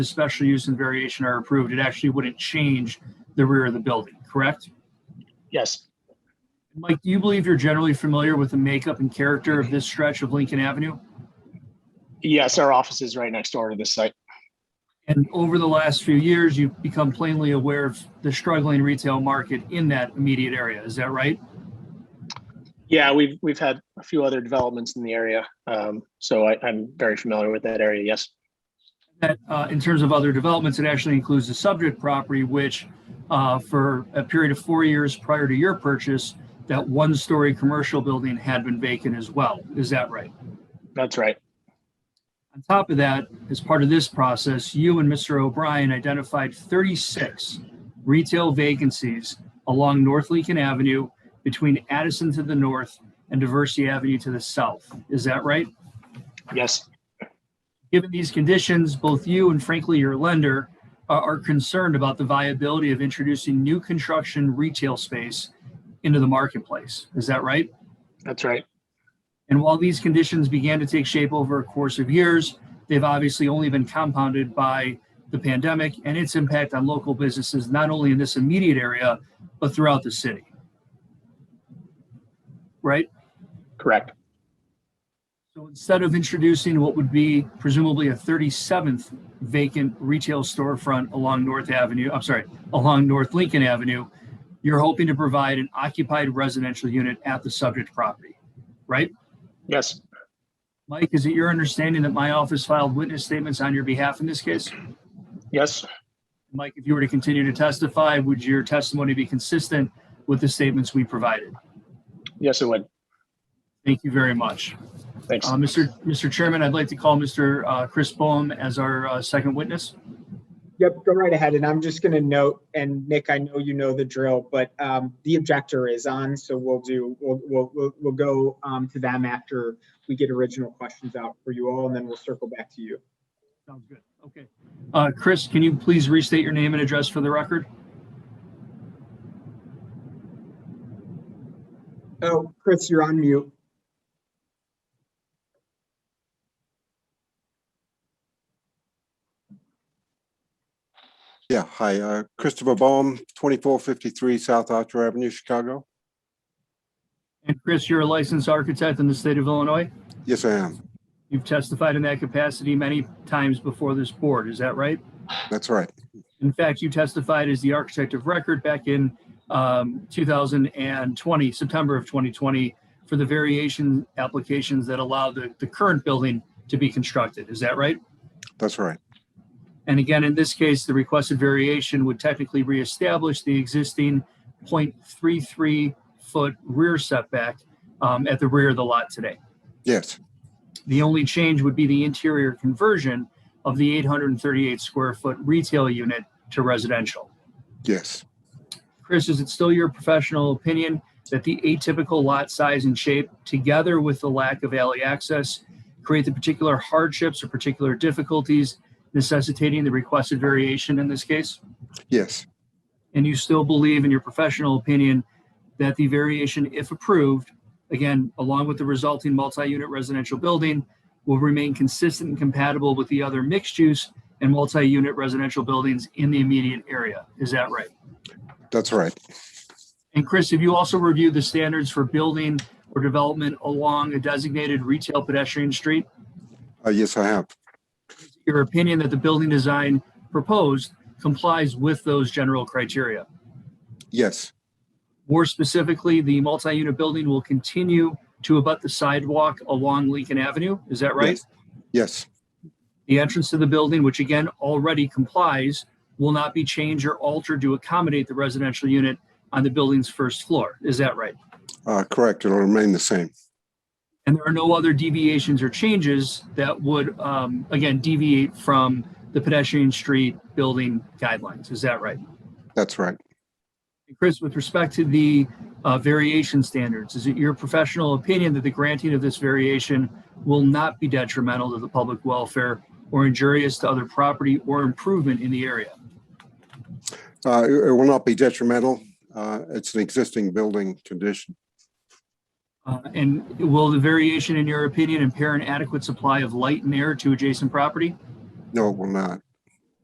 the special use and variation are approved, it actually wouldn't change the rear of the building, correct? Yes, Mike, do you believe you're generally familiar with the makeup and character of this stretch of Lincoln Avenue? yes, our office is right next door to this site. And over the last few years, you've become plainly aware of the struggling retail market in that immediate area. Is that right? Yeah, we've, we've had a few other developments in the area. Um, so I, I'm very familiar with that area. Yes. That, uh, in terms of other developments, it actually includes the subject property, which, uh, for a period of four years prior to your purchase, that one-story commercial building had been vacant as well. Is that right? That's right. On top of that, as part of this process, you and Mr. O'Brien identified 36 retail vacancies along North Lincoln Avenue between Addison to the north and Diversity Avenue to the south. Is that right? Yes. Given these conditions, both you and frankly your lender uh, are are concerned about the viability of introducing new construction retail space into the marketplace. Is that right? That's right. And while these conditions began to take shape over a course of years, they've obviously only been compounded by the pandemic and its impact on local businesses, not only in this immediate area, but throughout the city. Right? Correct. So instead of introducing what would be presumably a 37th vacant retail storefront along North Avenue, I'm sorry, along North Lincoln Avenue, you're hoping to provide an occupied residential unit at the subject property, right? Yes. Mike, is it your understanding that my office filed witness statements on your behalf in this case? Yes. Mike, if you were to continue to testify, would your testimony be consistent with the statements we provided? Yes, it would. Thank you very much. Thanks. Uh, Mr. Mr. Chairman, I'd like to call Mr. uh, Chris Boehm as our uh, second witness. Yep, go right ahead. And I'm just going to note, and Nick, I know you know the drill, but um, the objector is on, so we'll do, we'll, we'll, we'll, we'll go um, to them after we get original questions out for you all, and then we'll circle back to you. Sounds good. Okay. Uh, Chris, can you please restate your name and address for the record? Oh, Chris, you're on mute. Yeah, hi, uh, Christopher Baum, 2453 South Archer Avenue, Chicago. And Chris, you're a licensed architect in the state of Illinois. Yes, I am. You've testified in that capacity many times before this board. Is that right? That's right. In fact, you testified as the architect of record back in um, 2020, September of 2020, for the variation applications that allow the, the current building to be constructed. Is that right? That's right. And again, in this case, the requested variation would technically reestablish the existing 0.33 foot rear setback um, at the rear of the lot today. Yes, The only change would be the interior conversion of the 838 square foot retail unit to residential. yes, Chris, is it still your professional opinion that the atypical lot size and shape, together with the lack of alley access, create the particular hardships or particular difficulties necessitating the requested variation in this case? yes, And you still believe, in your professional opinion, that the variation, if approved, again, along with the resulting multi-unit residential building, will remain consistent and compatible with the other mixed-use and multi-unit residential buildings in the immediate area? Is that right? that's right. And Chris, have you also reviewed the standards for building or development along a designated retail pedestrian street? Uh, Yes, I have. Your opinion that the building design proposed complies with those general criteria? Yes, More specifically, the multi-unit building will continue to abut the sidewalk along Lincoln Avenue, is that right? Yes. yes, The entrance to the building, which again already complies, will not be changed or altered to accommodate the residential unit on the building's first floor, is that right? Uh, correct. It'll remain the same. And there are no other deviations or changes that would, um, again, deviate from the pedestrian street building guidelines. Is that right? That's right. And Chris, with respect to the uh, variation standards, is it your professional opinion that the granting of this variation will not be detrimental to the public welfare or injurious to other property or improvement in the area? Uh, It it will not be detrimental. Uh, It's an existing building condition. Uh, and will the variation, in your opinion, impair an adequate supply of light and air to adjacent property? No, it will not.